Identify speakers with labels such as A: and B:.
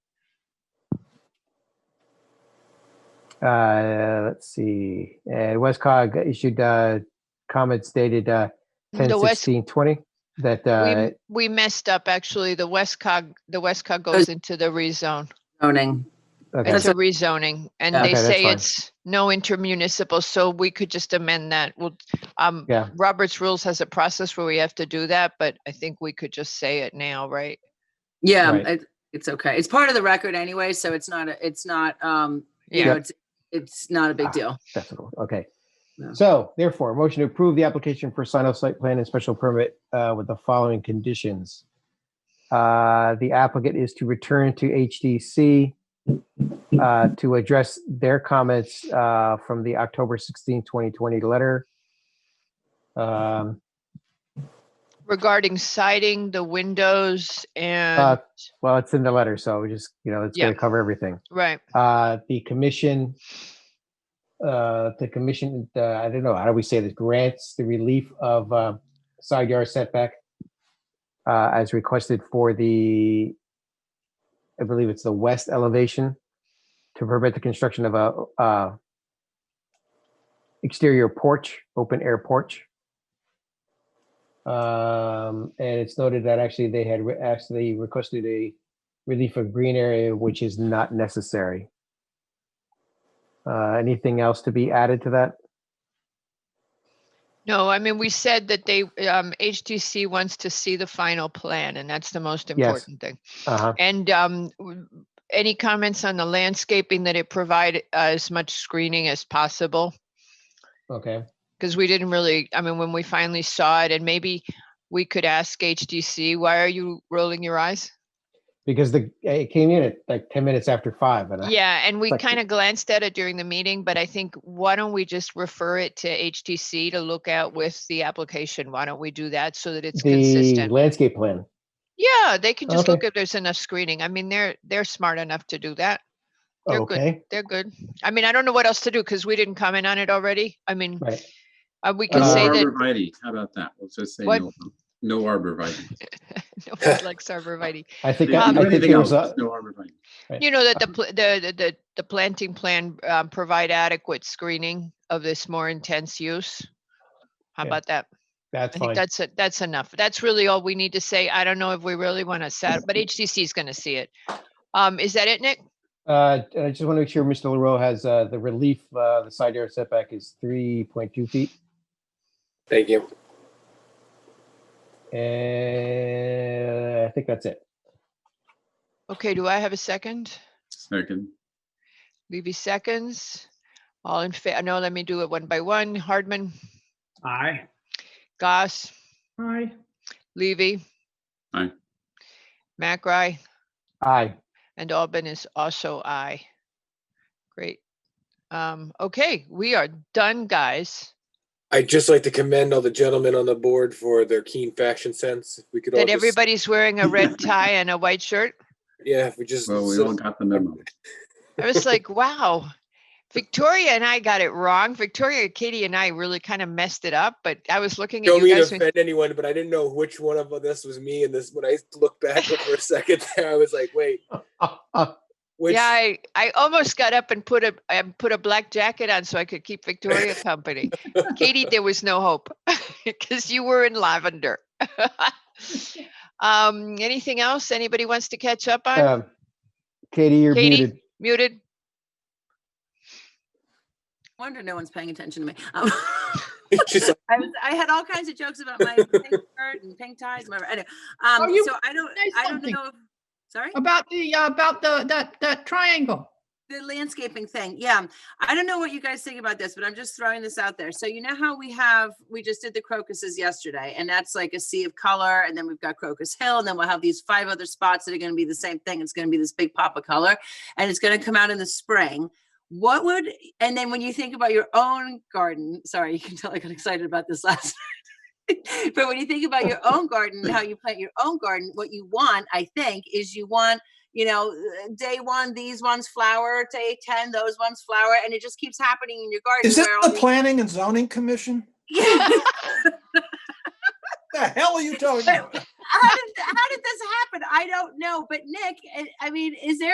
A: uh, let's see, uh, Westcog issued, uh, comments dated, uh, ten
B: The West,
A: sixteen twenty, that, uh,
B: we, we messed up, actually. The Westcog, the Westcog goes into the rezone,
C: zoning.
A: okay,
B: into rezoning. And
C: Yeah.
B: they
A: Okay, that's
B: say
A: fine.
B: it's no intermunicipal, so we could just amend that. Well, um,
A: Yeah.
B: Robert's Rules has a process where we have to do that, but I think we could just say it now, right?
C: Yeah,
A: Right.
C: it, it's okay. It's part of the record anyway, so it's not, a- it's not, um, you know,
B: Yeah,
C: it's, it's not
A: Ah.
C: a big deal.
A: that's cool, okay.
C: Yeah.
A: So therefore, motion to approve the application for sign off site plan and special permit, uh, with the following conditions. Uh, the applicant is to return to HDC, uh, to address their comments, uh, from the October 16, 2020 letter. Um,
B: regarding siding, the windows
A: Uh,
B: and,
A: well, it's in the letter, so we just, you know, it's
B: Yeah.
A: gonna cover everything.
B: right.
A: Uh, the commission, uh, the commission, uh, I don't know, how do we say this, grants the relief of, uh, side yard setback uh, as requested for the, I believe it's the west elevation to permit the construction of a, uh, exterior porch, open air porch. Um, and it's noted that actually they had re- actually requested a relief of green area, which is not necessary. Uh, anything else to be added to that?
B: No, I mean, we said that they, um, HTC wants to see the final plan and that's the most important thing.
A: Uh-huh,
B: And, um, w- any comments on the landscaping that it provide uh, as much screening as possible?
A: okay,
B: Because we didn't really, I mean, when we finally saw it and maybe we could ask HTC, why are you rolling your eyes?
A: because the, it came in at like ten minutes after five and I,
B: Yeah, and we
A: like-
B: kind of glanced at it during the meeting, but I think, why don't we just refer it to HTC to look at with the application? Why don't we do that so that it's
A: the
B: consistent?
A: landscape plan.
B: Yeah, they can just
A: Okay.
B: look if there's enough screening. I mean, they're, they're smart enough to do that. They're good.
A: Okay,
B: They're good. I mean, I don't know what else to do because we didn't comment on it already. I mean,
A: right.
B: uh, we
A: Can
B: could
A: Uh,
D: No
B: say that.
D: arborvitae, how about that? We'll just say
B: What?
D: no, no arborvitae.
B: Nobody likes arborvitae.
A: I think,
D: If
A: I
D: you
A: I
B: Um,
D: do
A: think
D: anything
A: there
D: else,
A: was uh, a,
D: it's no arborvitae.
A: Right.
B: You know that the, pl- the, the- the, the planting plan, um, provide adequate screening of this more intense use. How
A: Yeah.
B: about that?
A: that's
B: I think
A: fine.
B: that's, it- that's enough. That's really all we need to say. I don't know if we really want to set, but HTC is going to see it. Um, is that it, Nick?
A: Uh, I just want to make sure Mr. Leroux has, uh, the relief, uh, the side yard setback is three point two feet.
E: Thank you.
A: And I think that's it.
B: Okay, do I have a second?
D: Second,
B: Levy seconds. All in fa, no, let me do it one by one. Hardman,
F: Aye.
B: Goss,
F: Aye.
B: Levy.
D: Aye.
B: McRae
A: Aye,
B: and Albin is also aye. Great. Um, okay, we are done, guys.
E: I'd just like to commend all the gentlemen on the board for their keen fashion sense. If we could all
B: That
E: just,
B: everybody's wearing a red tie and a white shirt.
E: yeah, if we just
D: well, we
E: so-
D: all got the memo.
B: I was like, wow, Victoria and I got it wrong. Victoria, Katie and I really kind of messed it up, but I was looking at
E: don't
B: you
E: mean to
B: guys. when-
E: offend anyone, but I didn't know which one of this was me. And this, when I looked back for a second there, I was like, wait,
A: Uh, uh,
E: which?
B: Yeah, I, I almost got up and put a, I put a black jacket on so I could keep Victoria company. Katie, there was no hope because you were in lavender. Um, anything else anybody wants to catch up on?
A: um, Katie, you're
B: Katie?
A: muted.
B: Muted?
C: Wonder no one's paying attention to me. Um,
E: She's like,
C: I was, I had all kinds of jokes about my pink shirt and pink ties, whatever. Anyway, um,
G: Oh, you-
C: so I don't,
G: say
C: I don't
G: something.
C: know. if- Sorry?
G: About the, uh, about the, that, that triangle.
C: The landscaping thing, yeah. I don't know what you guys think about this, but I'm just throwing this out there. So you know how we have, we just did the crocuses yesterday, and that's like a sea of color, and then we've got Crocus Hill, and then we'll have these five other spots that are gonna be the same thing. It's gonna be this big pop of color, and it's gonna come out in the spring. What would, and then when you think about your own garden, sorry, you can tell I got excited about this last but when you think about your own garden, how you plant your own garden, what you want, I think, is you want, you know, uh, day one, these ones flower, day 10, those ones flower, and it just keeps happening in your garden.
H: Is that
C: where all
H: the
C: these-
H: Planning and Zoning Commission?
C: Yeah.
H: The hell are you talking about?
C: how, did, how did this happen? eh, I don't know. But Nick, I- I mean, is there